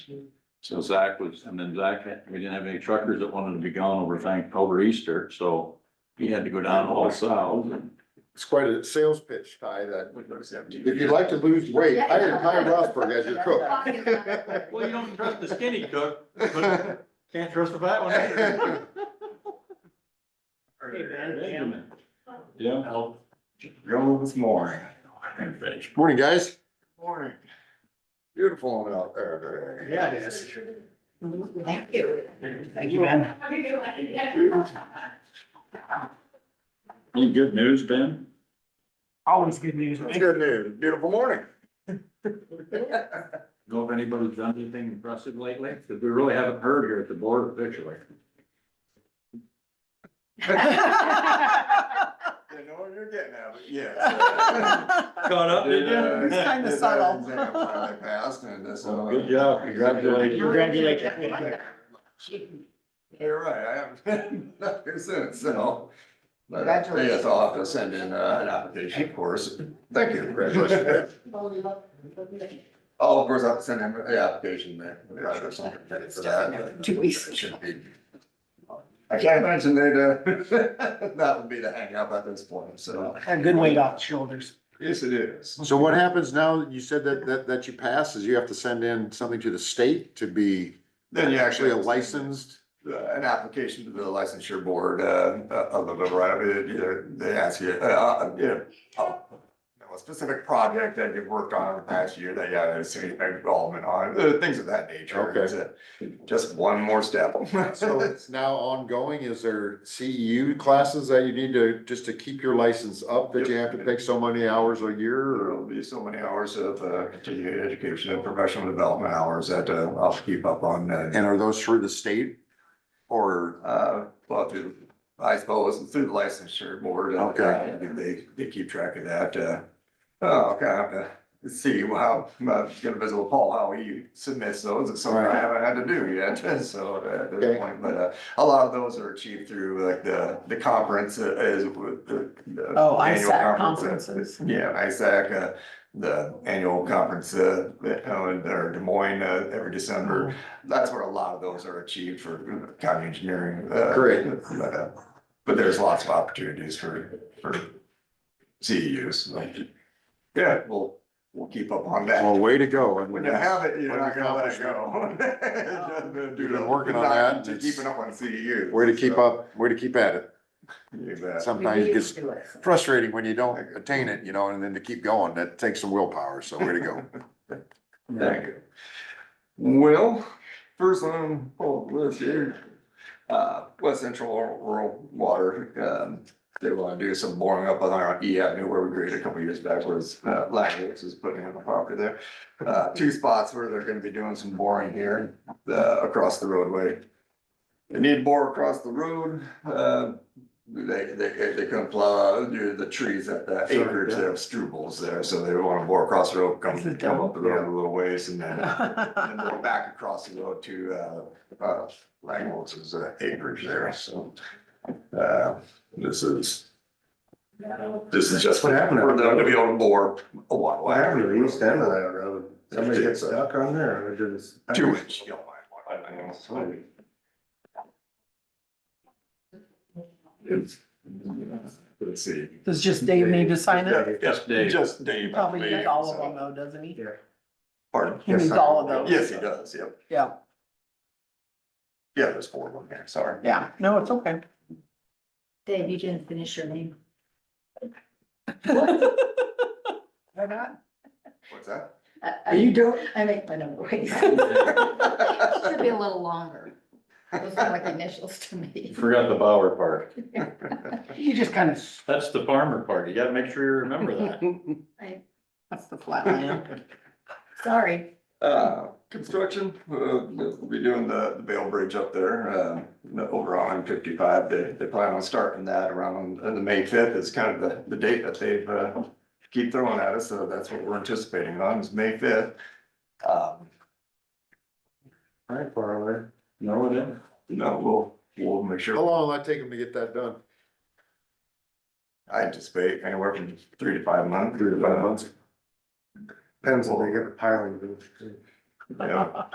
So Zach was, and then Zach, had- we didn't have any truckers that wanted to be gone over thank, over Easter, so he had to go down all south. It's quite a sales pitch, Ty, that if you'd like to lose weight, hire Ty Rosberg as your cook. Well, you don't trust the skinny cook, but can't trust the fat one either. Hey, Ben. Yeah. Roll with more. Morning, guys. Morning. Beautiful one out there. Yeah, it is. Thank you. Thank you, Ben. Any good news, Ben? Always good news. It's good news. Beautiful morning. Know if anybody's done anything impressive lately, because we really haven't heard here at the board officially. You know what you're getting at, but uh, yeah. Caught up, did Yeah, you? It's kinda yeah, subtle. that's exactly what I uh, passed, and uh, that's all. Good job, congratulations. Congratulations. You're right, I haven't been up here since, so. But uh, Congratulations. yes, I'll have to send in uh, an application, of course. Thank you. Congratulations. Oh, of course, I'll send in an application there. Right, or something for that. Two weeks. It should be. I can't imagine they'd, uh, that would be the hangup at this point, so. A good weight off the shoulders. Yes, it is. So what happens now, you said that, that, that you pass, is you have to send in something to the state to be Then you actually a license. licensed? uh, an application to the licensure board, uh, of the right, uh, they ask you, uh, yeah. A specific project that you've worked on in the past year that you have a significant involvement on, uh, things of that nature. Okay. It's a- Just one more step. So it's now ongoing, is there CEU classes that you need to, just to keep your license up, that you have to take so many hours a year? or- There'll be so many hours of, uh, continuing education and professional development hours that, uh, I'll keep up on. uh, And are those through the state? Or, Uh, well, through, I suppose, through the licensure board. uh, Okay. They, they keep track of that, uh, oh, kind of, see how, I'm gonna visit Paul, how he submits those, it's something I Right. haven't had to do yet, so uh, at this Okay. point, but, uh, a lot of those are achieved through like the, the conference uh, is with the. the Oh, annual ISAC conference, uh, conferences. Yeah, ISAC, uh, the annual conference, uh, that, uh, or Des Moines, uh, every December, Mm-hmm. that's where a lot of those are achieved for uh, county engineering. uh, Great. But uh, but there's lots of opportunities for, for CEUs. like, Yeah, we'll, we'll keep up on well, that. way to go. and- When you have it, you're not gonna let it go. uh, Accomplishment. You've been working on that, and it's- Keeping up on CEUs. Way to keep so, up, way to keep at it. you bet. Sometimes it gets frustrating when you don't attain it, you know, and then to keep going, that takes some willpower, so way to go. Thank you. Well, first on, oh, let's see, uh, West Central Rural Water, um, they want to do some boring up on our E Avenue where we graded a couple years back was, uh, Langley's is putting in a property there. Uh, two spots where they're gonna be doing some boring here, uh, across the roadway. They need to bore across the road, uh, they, they, they couldn't plow, do the trees at the acreage there of strubles there, so they wanna bore across the road, come, come up the road a little ways and then and then go back across the road to, uh, uh, Langholz's uh, acreage there, so. Uh, this is, this is just what happened. For them to be able to bore a water. What happened to the east end of that road? Somebody gets stuck on there, or did Two inch. It's- Let's see. Does just Dave need to sign it? Yes, Dave. Just Dave. Probably needs all of so- them though, doesn't he? Pardon? He needs Yes, I- all of those. Yes, he does, yep. Yeah, Yeah, there's four of them there, sorry. yeah. No, it's okay. Dave, you didn't finish your name. Why not? What's that? I- I- don't. I make my own voice. Should be a little longer. Those are like initials to You me. Forgot the Bauer part. You just kind of, That's the farmer part. You gotta make sure you remember that. I- That's the flatland. Sorry. Uh, construction, uh, we'll be doing the, the Bale Bridge up there, uh, the- over on fifty-five, they, they plan on starting that around uh, the May fifth is kind of the, the date that they've, uh, keep throwing at us, so that's what we're anticipating on, is May fifth. Um, Right, far away. No, it isn't. no, we'll, we'll make How sure, long will that take them to get that done? I anticipate anywhere from three to five months. Three to Five months? Depends on they get the piling. Yeah.